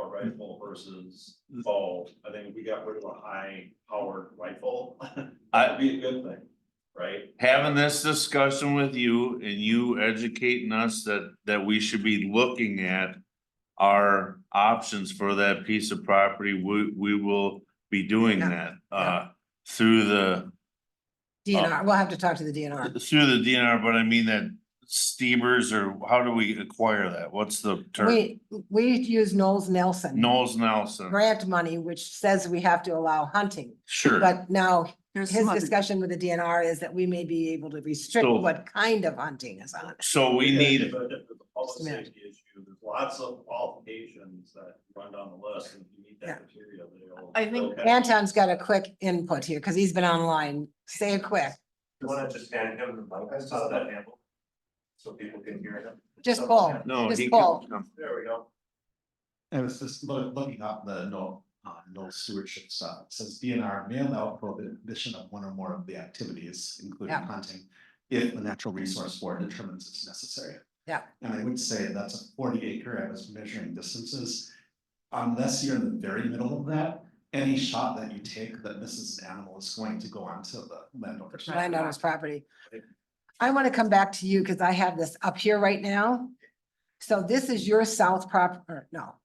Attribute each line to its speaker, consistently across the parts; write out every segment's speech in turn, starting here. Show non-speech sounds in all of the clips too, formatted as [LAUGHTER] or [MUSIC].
Speaker 1: rifle versus
Speaker 2: Mm.
Speaker 1: bow. I think if we got rid of a high powered rifle, [LAUGHS] that'd
Speaker 2: I,
Speaker 1: be a good thing, right?
Speaker 2: having this discussion with you and you educating us that, that we should be looking at. Our options for that piece of property, we, we will be doing
Speaker 3: Yeah,
Speaker 2: that, uh, through the. Oh.
Speaker 3: DNR, we'll have to talk to the DNR.
Speaker 2: Through the DNR, but I mean that Stevers or how do we acquire that? What's the term?
Speaker 3: We, we use Knowles Nelson.
Speaker 2: Knowles Nelson,
Speaker 3: Grant money, which says we have to allow hunting,
Speaker 2: sure,
Speaker 3: but now
Speaker 4: There's
Speaker 3: his
Speaker 4: some other,
Speaker 3: discussion with the DNR is that we may be able to restrict
Speaker 2: So-
Speaker 3: what kind of hunting is on it.
Speaker 2: so we need,
Speaker 1: But if it's a public
Speaker 3: Just a minute.
Speaker 1: safety issue, there's lots of qualifications that run down the list, and if you meet
Speaker 3: Yeah.
Speaker 1: that criteria, they'll.
Speaker 4: I think-
Speaker 1: they'll catch
Speaker 3: Anton's got a quick input here, because he's been online. Say it quick,
Speaker 5: You wanna just hand him the mic, I saw that handle. So people can hear him.
Speaker 3: just pull.
Speaker 2: no.
Speaker 3: Just
Speaker 2: he
Speaker 3: Paul.
Speaker 2: can-
Speaker 5: There we go.
Speaker 6: I was just loo- looking up the no, uh, no stewardship stuff, It says DNR may allow prohibition of one or more of the activities, including
Speaker 3: Yeah.
Speaker 6: hunting. If the natural resource board determines it's necessary.
Speaker 3: Yeah.
Speaker 6: And I would say that's a forty acre, I was measuring distances. Unless you're in the very middle of that, any shot that you take that misses an animal is going to go onto the landowner's.
Speaker 4: Right.
Speaker 3: landowner's property. I want to come back to you because I have this up here right now. So this is your south prop, or no,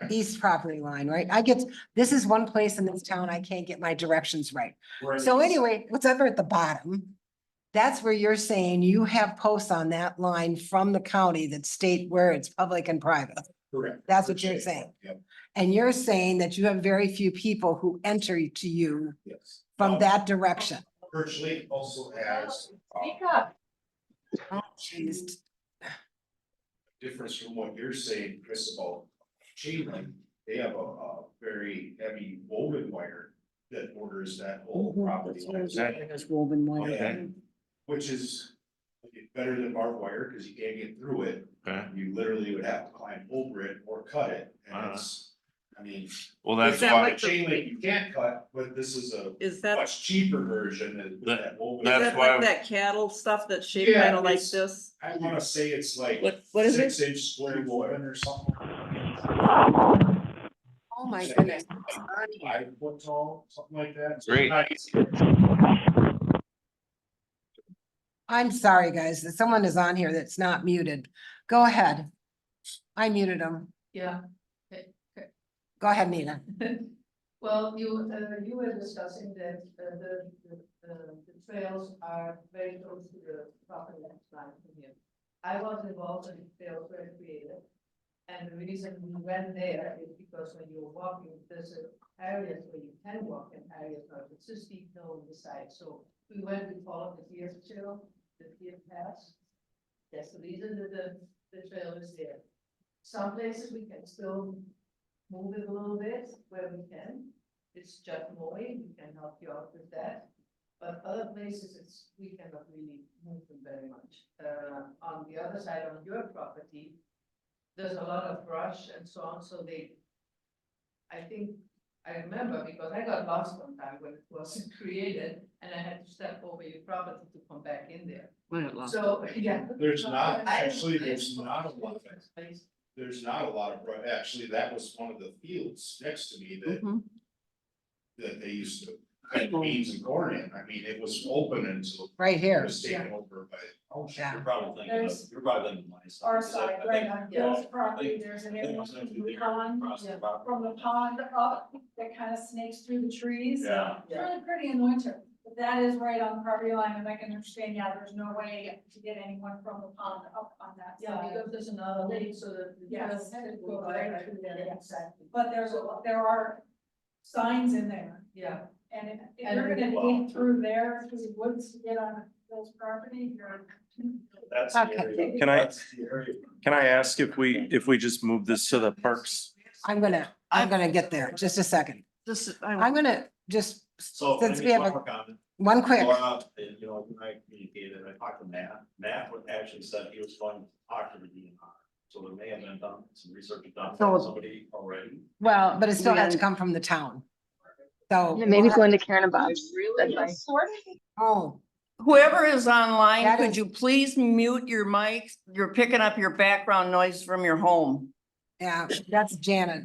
Speaker 2: Right.
Speaker 3: east property line, right? I get, this is one place in this town I can't get my directions right.
Speaker 5: We're in
Speaker 3: So
Speaker 5: these-
Speaker 3: anyway, what's ever at the bottom, that's where you're saying you have posts on that line from the county that state where it's public and private.
Speaker 5: Correct.
Speaker 3: That's what you're saying.
Speaker 5: Yep.
Speaker 3: And you're saying that you have very few people who enter to you
Speaker 5: Yes.
Speaker 3: from
Speaker 5: Um,
Speaker 3: that direction.
Speaker 5: Virtually also has uh,
Speaker 3: Oh, jeez.
Speaker 5: difference from what you're saying, Chris, about chain link. They have a, a very heavy woven wire that borders that whole
Speaker 4: Mhm.
Speaker 5: property. line.
Speaker 2: Okay,
Speaker 5: Which is better than barbed wire, cause you can't get through it.
Speaker 2: okay.
Speaker 5: You literally would have to climb over it or cut it, and it's, I mean.
Speaker 2: Well, that's
Speaker 4: Is that
Speaker 2: why,
Speaker 4: like-
Speaker 5: The chain link you can't cut, but this is a
Speaker 4: is that, is
Speaker 5: much cheaper version than with
Speaker 2: That-
Speaker 5: that old.
Speaker 2: that's
Speaker 4: that
Speaker 2: why-
Speaker 4: like that cattle stuff that's shaped
Speaker 5: Yeah,
Speaker 4: kind of like
Speaker 5: it's-
Speaker 4: this?
Speaker 5: I wanna say it's like
Speaker 4: What, what is it?
Speaker 5: six inch square woven or something.
Speaker 3: Oh, my
Speaker 5: Say
Speaker 3: goodness.
Speaker 5: it's like Five foot tall, something like that.
Speaker 2: Great.
Speaker 5: Nice.
Speaker 3: I'm sorry, guys, that someone is on here that's not muted. Go ahead. I muted them.
Speaker 7: Yeah, [LAUGHS]
Speaker 3: Go ahead, Nina.
Speaker 7: well, you, uh, you were discussing that, uh, the, the, the the trails are very close to the property line from here. I was involved in trails were created, and the reason we went there is because when you're walking, there's a areas where you can walk and areas where it's just steep hill on the side, so we went and followed the deer trail, the deer pass. That's the reason that the, the trail is there. Some places we can still move it a little bit where we can. It's just Moy, we can help you out with that. But other places, it's, we cannot really move them very much. Uh, on the other side, on your property, there's a lot of brush and so on, so they, I think, I remember because I got lost one time when it was [LAUGHS] created and I had to step over your property to come back in there. So, yeah.
Speaker 5: There's not,
Speaker 7: I-
Speaker 5: actually, there's not a lot of it.
Speaker 7: Space.
Speaker 5: There's not a lot of, bri- actually, that was one of the fields next to me that,
Speaker 4: Mhm.
Speaker 5: that they used to plant beans and corn in. I mean, it was open until
Speaker 3: Right
Speaker 5: it
Speaker 3: here.
Speaker 5: was taken over by. Oh,
Speaker 3: Yeah.
Speaker 1: You're probably thinking, of- you're probably thinking. of
Speaker 8: our
Speaker 1: livestock, 'cause I-
Speaker 8: side,
Speaker 1: I
Speaker 8: right
Speaker 1: think-
Speaker 8: on
Speaker 7: yeah.
Speaker 8: Bill's property, there's an area pond
Speaker 1: Across the
Speaker 7: Yeah.
Speaker 1: property.
Speaker 8: from the pond up that kind of snakes through the trees.
Speaker 1: Yeah.
Speaker 8: It's really pretty in the winter, but that is right on the property line, and I can understand, yeah, there's no way to get anyone from the pond up on that
Speaker 7: Yeah,
Speaker 8: side.
Speaker 7: because there's another lane, so that. the
Speaker 8: Yes,
Speaker 7: trail
Speaker 8: it
Speaker 7: will
Speaker 8: goes
Speaker 7: go
Speaker 8: right through
Speaker 7: there,
Speaker 8: there, yes.
Speaker 7: Exactly.
Speaker 8: But there's, a lot- there are signs in there,
Speaker 7: Yeah,
Speaker 8: and if- if
Speaker 7: And-
Speaker 8: you're gonna
Speaker 1: Wow.
Speaker 8: dig through there, through the woods to get on Bill's property, you're.
Speaker 1: That's the
Speaker 3: Okay.
Speaker 1: area.
Speaker 9: Can I-
Speaker 1: That's the area.
Speaker 9: Can I ask if we, if we just move this to the parks?
Speaker 3: I'm gonna, I'm gonna get there. Just a second.
Speaker 4: This, is-
Speaker 3: I'm
Speaker 4: I,
Speaker 3: gonna just,
Speaker 1: So.
Speaker 3: since
Speaker 1: maybe
Speaker 3: we have
Speaker 1: one
Speaker 3: a-
Speaker 1: more comment.
Speaker 3: one quick.
Speaker 1: Laura, and, you know, when I communicated, I talked to Matt, Matt would actually said he was going to talk to the DNR. So there may have been done, some research done by
Speaker 4: So-
Speaker 1: somebody already.
Speaker 3: Well, but it still has to come from the town. So.
Speaker 10: Maybe going to Karen and Bob's. That's my-
Speaker 3: Oh,
Speaker 4: whoever is online,
Speaker 3: That
Speaker 4: could
Speaker 3: is-
Speaker 4: you please mute your mic? You're picking up your background noise from your home.
Speaker 3: yeah, that's Janet.